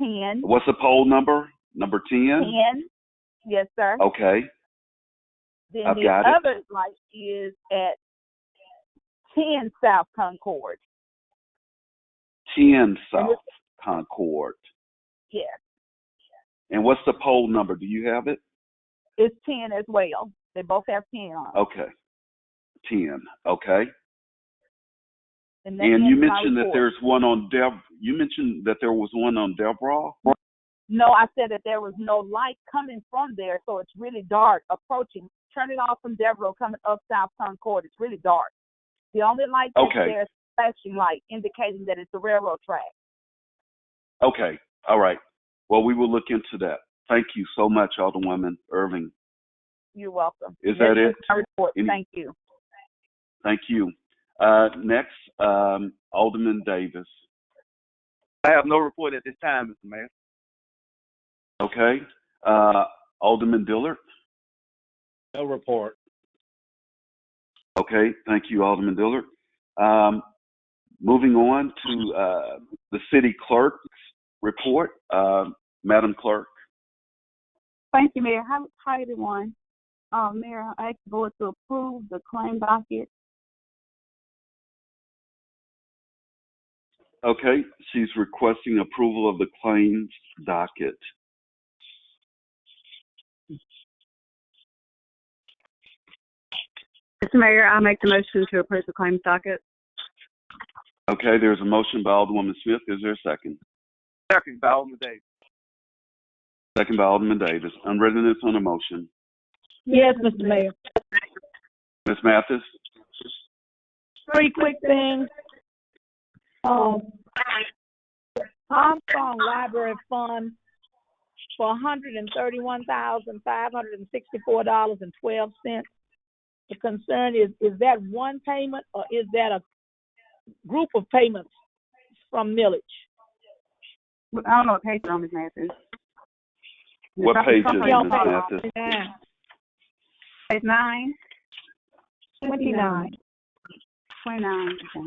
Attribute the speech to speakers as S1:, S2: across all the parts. S1: Ten.
S2: What's the poll number? Number 10?
S1: Ten. Yes, sir.
S2: Okay.
S1: Then
S2: Oh, I've
S1: the
S2: got it.
S1: other light is at ten South Concord.
S2: 10
S1: And
S2: South
S1: it's-
S2: Concord.
S1: Yes.
S2: And what's the poll number? Do you have it?
S1: It's ten as well. They both have ten on. it.
S2: Okay. 10. Okay.
S1: And, that
S2: And you
S1: ends my
S2: mentioned that
S1: report.
S2: there's one on Dev, you mentioned that there was one on Deborah.
S1: No, I said that there was no light coming from there, so it's really dark approaching. Turn it off from Devereaux coming up South Concord. It's really dark. The only light that's
S2: Okay.
S1: there is flashing light, indicating that it's a railroad track.
S2: Okay. All right. Well, we will look into that. Thank you so much, Alderwoman Irving.
S1: You're welcome.
S2: Is that
S1: This
S2: it?
S1: my report.
S2: Any-
S1: Thank you.
S2: Thank you. Uh, next, um, Alderman Davis.
S3: I have no report at this time, Mr. Mayor.
S2: Okay. Uh, Alderman Dillard.
S3: No report.
S2: Okay. Thank you, Alderman Dillard. Um, moving on to uh, the city clerk's report. Uh, Madam Clerk.
S4: Thank you, Mayor. Hi, hi everyone. Uh, Mayor, I ask the board to approve the claim docket.
S2: Okay. She's requesting approval of the claims docket.
S4: Mr. Mayor, I make the motion to approve the claim docket.
S2: Okay. There's a motion by Alderwoman Smith. Is there a second?
S3: Second by Alderman Davis.
S2: Second by Alderman Davis. Unreadiness on the motion.
S5: Yes, Mr. Mayor.
S2: Ms. Mathis.
S5: Three quick things. Um, Armstrong Library Fund for hundred and thirty-one thousand, five hundred and sixty-four dollars and twelve cents. The concern is, is that one payment or is that a group of payments from millage?
S4: I don't know what page it's on, Ms. Mathis.
S2: What page is
S5: Y'all
S2: it, Ms.
S5: pay-
S2: Mathis?
S4: Page nine,
S5: Twenty-nine.
S4: twenty-nine, okay.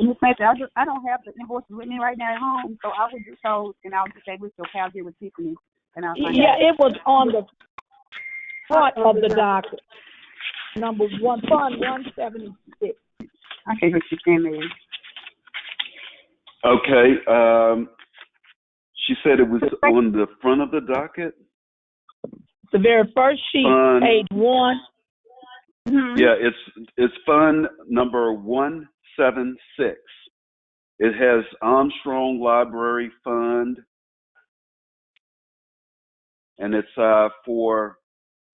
S4: Ms. Mathis, I just, I don't have the invoices with me right now at home, so I would just hold, and I'll just say, we'll pal here with Tiffany, and I'll find
S5: Yeah,
S4: out.
S5: it was on the front of the docket. Number one, Fund one seventy-six.
S4: Okay, what you're saying, Mayor.
S2: Okay, um, she said it was on the front of the docket?
S5: The very first sheet,
S2: Fund-
S5: page one,
S4: Mm-hmm.
S2: Yeah, it's, it's fund number one seven six. It has Armstrong Library Fund. And it's, uh, for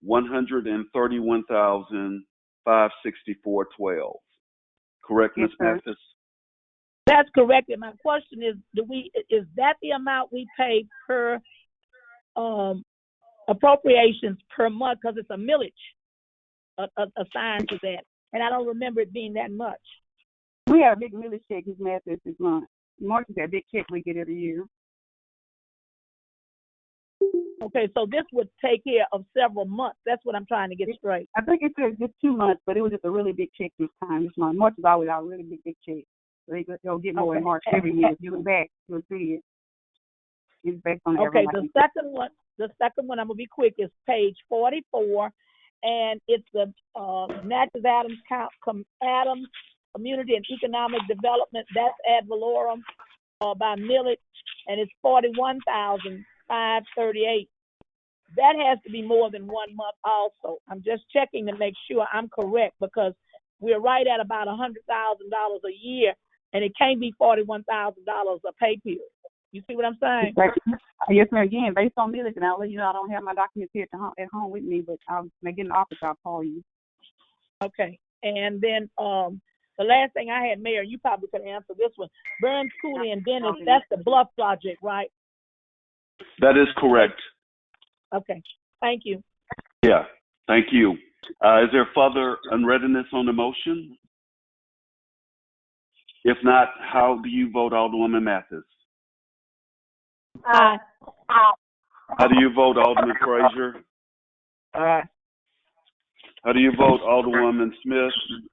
S2: one hundred and thirty-one thousand, five sixty-four twelve. Correct, Ms.
S4: Yes, sir.
S2: Mathis?
S5: that's correct. And my question is, do we, is that the amount we pay per, um, appropriations per month? Because it's a millage a- a- assigned to that. And I don't remember it being that much.
S4: We had a big millage check his master's this month. Mark is that big check we get every year.
S5: Okay, so this would take care of several months. That's what I'm trying to get straight.
S4: I think it took just two months, but it was just a really big check this time this month. March is always our really big big check. So they go- they'll get more in
S5: Okay.
S4: March every year. If you look back, you'll see it. It's based on
S5: Okay,
S4: every
S5: the
S4: license.
S5: second one, the second one, I'm gonna be quick, is page forty-four, and it's the, uh, Natchez Adams Count, Com, Adams Community and Economic Development, that's ad valorem, uh, by millage, and it's forty-one thousand five thirty-eight. That has to be more than one month also, I'm just checking to make sure I'm correct, because we're right at about a hundred thousand dollars a year, and it can't be forty-one thousand dollars a pay period. You see what I'm saying?
S4: It's like- Yes, ma'am. Again, based on millage, and I'll let you know I don't have my documents here at, the home, at home with me, but I'll, when I get in the office, I'll call you.
S5: Okay, and then, um, the last thing I had, Mayor, you probably could answer this one. Burns Cooley and Dennis, that's the Bluff project, right?
S2: That is correct.
S5: Okay, thank you.
S2: Yeah, thank you. Uh, is there further unreadiness on the motion? If not, how do you vote, Alderwoman Mathis?
S5: Aye.
S2: How do you vote, Alderman Frazier?
S3: Aye.
S2: How do you vote, Alderwoman Smith?